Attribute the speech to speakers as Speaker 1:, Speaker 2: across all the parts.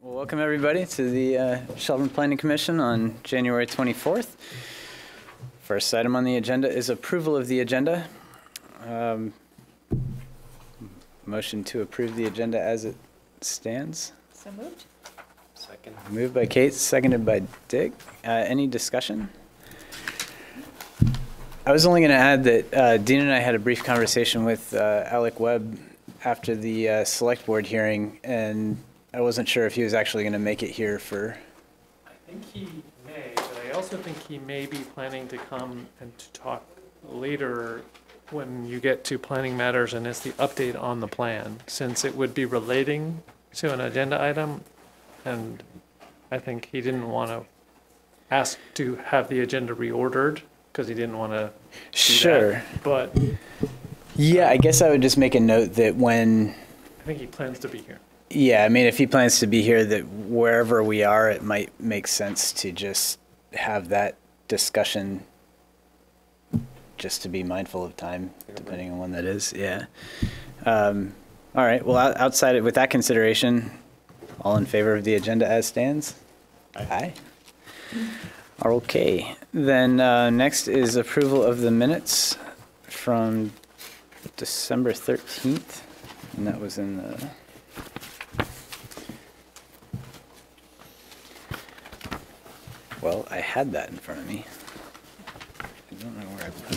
Speaker 1: Welcome, everybody, to the uh, Shelburne Planning Commission on January 24th. First item on the agenda is approval of the agenda. Um, Motion to approve the agenda as it stands.
Speaker 2: So moved?
Speaker 3: Second.
Speaker 1: Moved by Kate, seconded by Dick. Uh, Any discussion? I was only going to add that uh, Dean and I had a brief conversation with uh, Alec Webb after the uh, Select Board hearing, and I wasn't sure if he was actually going to make it here for,
Speaker 3: I think he may, but I also think he may be planning to come and to talk later when you get to planning matters and it's the update on the plan, since it would be relating to an agenda item. And I think he didn't want to ask to have the agenda reordered because he didn't want to do that.
Speaker 1: sure.
Speaker 3: But
Speaker 1: Yeah, I guess I would just make a note that when,
Speaker 3: I think he plans to be here.
Speaker 1: yeah, I mean, if he plans to be here, that wherever we are, it might make sense to just have that discussion just to be mindful of time, depending on when that is, yeah. Um, All right, well, out- outside, of- with that consideration, all in favor of the agenda as stands? Aye. Okay, then uh, next is approval of the minutes from December 13th, and that was in the... Well, I had that in front of me. I don't know where I put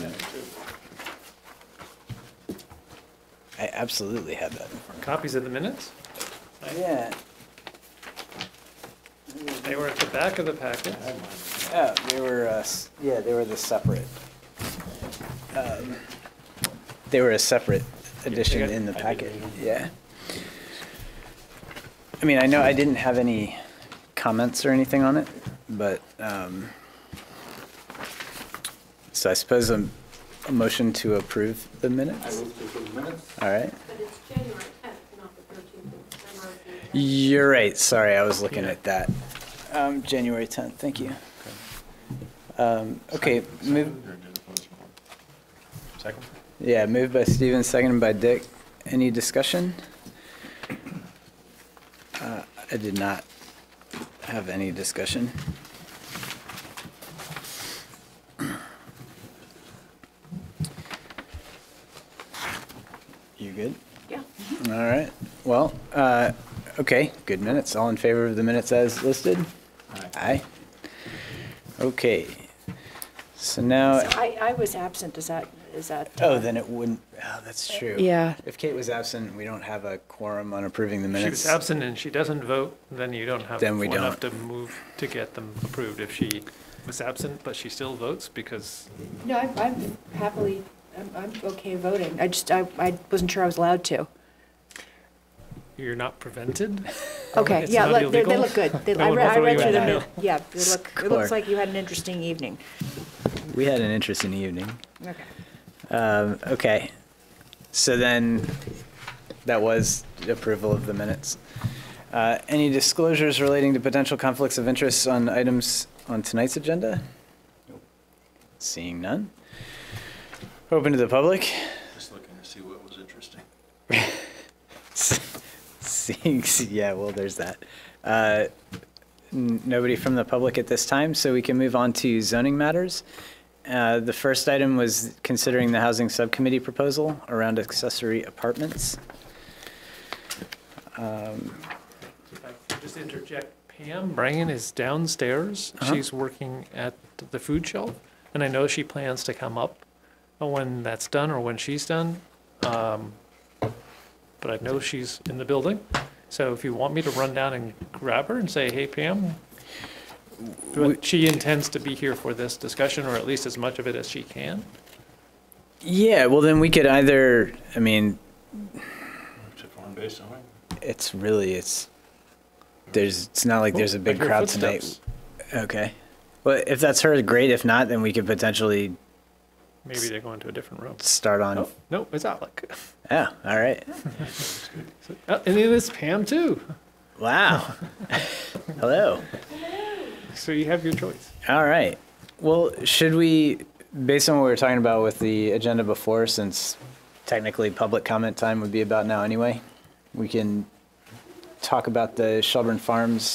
Speaker 1: it. I absolutely had that in front
Speaker 3: Copies of the minutes?
Speaker 1: of me. Yeah.
Speaker 3: They were at the back of the packet.
Speaker 1: Oh, they were, uh, s- yeah, they were the separate. um, They were a separate edition
Speaker 3: got-
Speaker 1: in the packet, yeah. I mean, I know I didn't have any comments or anything on it, but, um, so I suppose a, a motion to approve the minutes? All right.
Speaker 4: But it's January 10th, not the 13th. Remember, the-
Speaker 1: You're right, sorry, I was looking
Speaker 3: Yeah.
Speaker 1: at that. Um, January 10th, thank you. Um, okay, move.
Speaker 5: Second?
Speaker 1: Yeah, moved by Steven, seconded by Dick. Any discussion? Uh, I did not have any discussion. You good?
Speaker 4: Yeah.
Speaker 1: All right. Well, uh, okay, good minutes. All in favor of the minutes as listed? Aye. Okay. So now,
Speaker 2: So I, I was absent, is that, is that?
Speaker 1: oh, then it wouldn't, oh, that's true.
Speaker 2: Yeah.
Speaker 1: If Kate was absent, we don't have a quorum on approving the
Speaker 3: She was
Speaker 1: minutes.
Speaker 3: absent and she doesn't vote, then you don't have
Speaker 1: Then we
Speaker 3: enough to move to get them approved. If she was absent, but she still votes because
Speaker 2: No, I'm- I'm happily, I'm, I'm okay voting. I just, I, I wasn't sure I was allowed to.
Speaker 3: you're not prevented.
Speaker 2: Okay,
Speaker 3: It's
Speaker 2: yeah,
Speaker 3: not
Speaker 2: look- they, they
Speaker 3: illegal.
Speaker 2: look good. They-
Speaker 3: No
Speaker 2: I
Speaker 3: one
Speaker 2: re-
Speaker 3: will
Speaker 2: I
Speaker 3: throw
Speaker 2: read
Speaker 3: you
Speaker 2: through
Speaker 3: in
Speaker 2: them.
Speaker 3: jail.
Speaker 2: Yeah, it look, it
Speaker 1: Score.
Speaker 2: looks like you had an interesting evening.
Speaker 1: We had an interesting evening.
Speaker 2: Okay.
Speaker 1: Um, okay. So then, that was approval of the minutes. Uh, any disclosures relating to potential conflicts of interest on items on tonight's agenda? Seeing none. Open to the public.
Speaker 5: Just looking to see what was interesting.
Speaker 1: Seeing, yeah, well, there's that. Uh, n- Nobody from the public at this time, so we can move on to zoning matters. Uh, The first item was considering the housing subcommittee proposal around accessory apartments.
Speaker 3: If I could Just interject, Pam Brangan is downstairs.
Speaker 1: Uh-huh.
Speaker 3: She's working at the food shelf. And I know she plans to come up when that's done or when she's done. Um, But I know she's in the building. So if you want me to run down and grab her and say, hey, Pam, but she intends to be here for this discussion, or at least as much of it as she can.
Speaker 1: Yeah, well, then we could either, I mean,
Speaker 5: Is it form-based zoning?
Speaker 1: it's really, it's, there's, it's not like there's a big
Speaker 3: I hear
Speaker 1: crowd tonight.
Speaker 3: footsteps.
Speaker 1: Okay. Well, if that's her, great. If not, then we could potentially
Speaker 3: Maybe they're going to a different room.
Speaker 1: start on,
Speaker 3: Oh, no, it's Alec.
Speaker 1: oh, all right.
Speaker 3: Oh, And it is Pam, too.
Speaker 1: Wow. Hello.
Speaker 3: So you have your choice.
Speaker 1: All right. Well, should we, based on what we were talking about with the agenda before, since technically public comment time would be about now anyway, we can talk about the Shelburne Farms